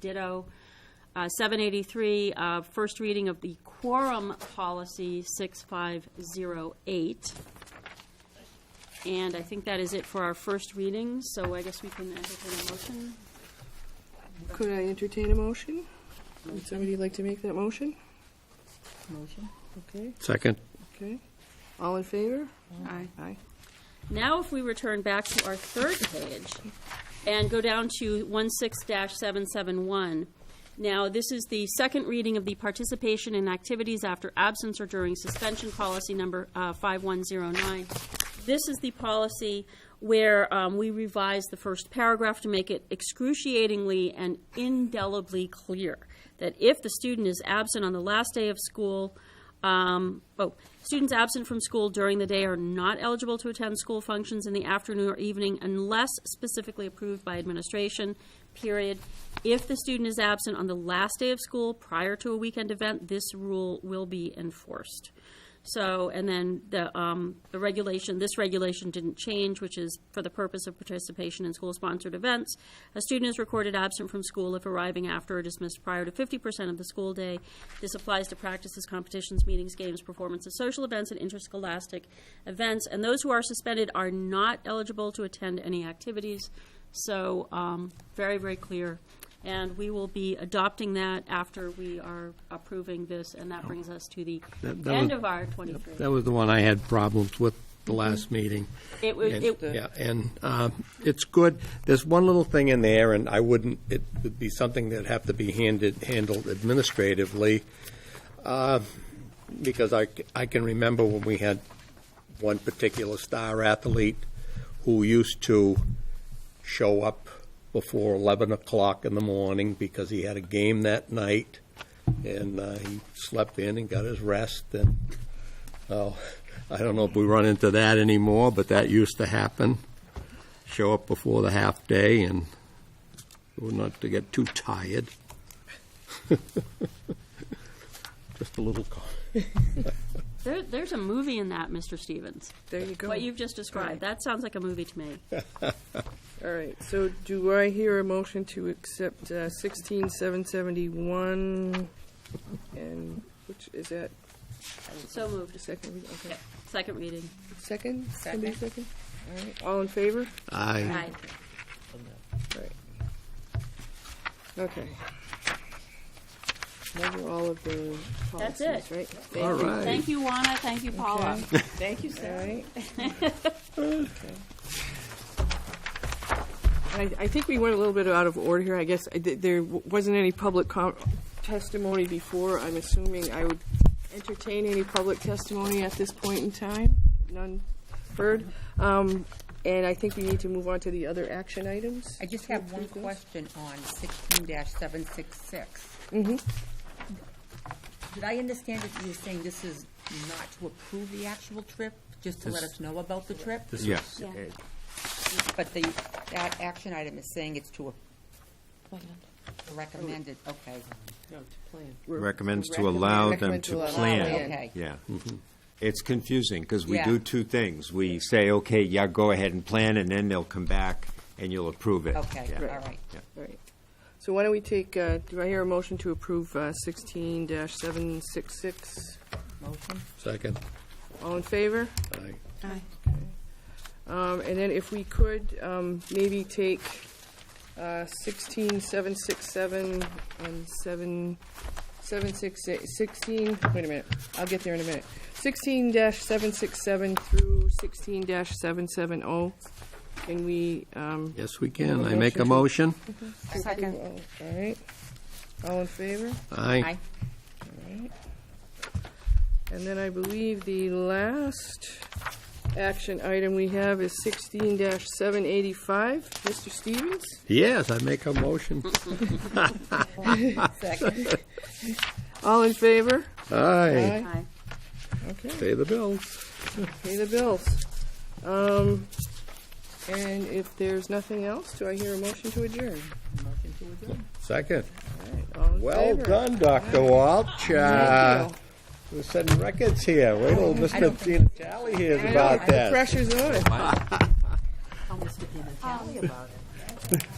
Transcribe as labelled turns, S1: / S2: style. S1: ditto. Uh, 783, uh, first reading of the quorum policy 6508. And I think that is it for our first reading, so I guess we can entertain a motion.
S2: Could I entertain a motion? Would somebody like to make that motion?
S3: Motion.
S2: Okay,
S4: Second.
S2: okay. All in favor?
S1: Aye.
S2: Aye.
S1: Now, if we return back to our third page and go down to 16-771, now, this is the second reading of the participation in activities after absence or during suspension policy number uh, 5109. This is the policy where um, we revised the first paragraph to make it excruciatingly and indelibly clear that if the student is absent on the last day of school, um, oh, students absent from school during the day are not eligible to attend school functions in the afternoon or evening unless specifically approved by administration, period. If the student is absent on the last day of school prior to a weekend event, this rule will be enforced. So, and then the, um, the regulation, this regulation didn't change, which is for the purpose of participation in school-sponsored events. A student is recorded absent from school if arriving after or dismissed prior to fifty percent of the school day. This applies to practices, competitions, meetings, games, performances, social events, and interscholastic events. And those who are suspended are not eligible to attend any activities. So, um, very, very clear. And we will be adopting that after we are approving this, and that brings us to the
S4: Oh. That- that
S1: end
S4: was-
S1: of our 23.
S4: That was the one I had problems with the last meeting.
S1: Mm-hmm. It would-
S4: And-
S1: it-
S4: Yeah, and uh, it's good. There's one little thing in there, and I wouldn't, it would be something that'd have to be handed, handled administratively, uh, because I, c- I can remember when we had one particular star athlete who used to show up before 11 o'clock in the morning because he had a game that night, and uh, he slept in and got his rest, and Oh, I don't know if we run into that anymore, but that used to happen. Show up before the half day and we're not to get too tired. Just a little. co-
S1: There, there's a movie in that, Mr. Stevens.
S2: There you go.
S1: What you've just described, that sounds like a movie to me.
S2: All right, so do I hear a motion to accept uh, 16771? And which, is that
S1: So
S2: the
S1: moved.
S2: second? read? Okay.
S1: Second reading.
S2: Second? Somebody second? All right, all in favor?
S4: Aye.
S2: Right. Okay. Those are all of the
S1: That's
S2: policies,
S1: it.
S2: right?
S4: All right.
S1: Thank you, Juana. Thank you, Paula.
S2: Thank you, Sarah. All right. I, I think we went a little bit out of order here. I guess I did- there w- wasn't any public com- testimony before. I'm assuming I would entertain any public testimony at this point in time. None heard. Um, and I think we need to move on to the other action items.
S3: I just have one
S2: Please.
S3: question on sixteen seven six six. Did I understand that you were saying this is not to approve the actual trip, just to let us know about the trip?
S4: Yes.
S3: But the, that action item is saying it's to a- recommend it, okay.
S5: Recommends to allow them
S2: Recommend to
S5: to
S2: allow
S5: plan.
S2: plan.
S3: Okay.
S5: Yeah. It's confusing, because we
S3: Yeah.
S5: do two things. We say, okay, yeah, go ahead and plan, and then they'll come back and you'll approve it.
S3: Okay,
S5: Yeah.
S3: all right.
S2: All right. So why don't we take, uh, do I hear a motion to approve uh, sixteen seven six six?
S3: Motion?
S4: Second.
S2: All in favor?
S4: Aye.
S2: Um, And then if we could, um, maybe take uh, 16, 767, and 7, 768, 16, wait a minute, I'll get there in a minute. 16-767 through 16-770, oh. can we? um,
S4: Yes, we can. I make a motion.
S3: Second.
S2: All right, all in favor?
S4: Aye.
S2: And then I believe the last action item we have is 16-785. Mr. Stevens?
S4: Yes, I make a motion.
S3: Second.
S2: All in favor?
S4: Aye.
S1: Aye.
S2: Okay.
S4: Pay the bills.
S2: Pay the bills. Um, and if there's nothing else, do I hear a motion to adjourn?
S3: Motion to adjourn.
S4: Second.
S2: All in
S4: Well
S2: favor?
S4: done, Dr. Walsh. Uh,
S2: Thank you.
S4: We're setting records here. Wait till Mr. Vitale hears
S2: I know,
S4: about
S2: the
S4: that.
S2: pressure's on.
S3: Almost forgetting to tell you about it.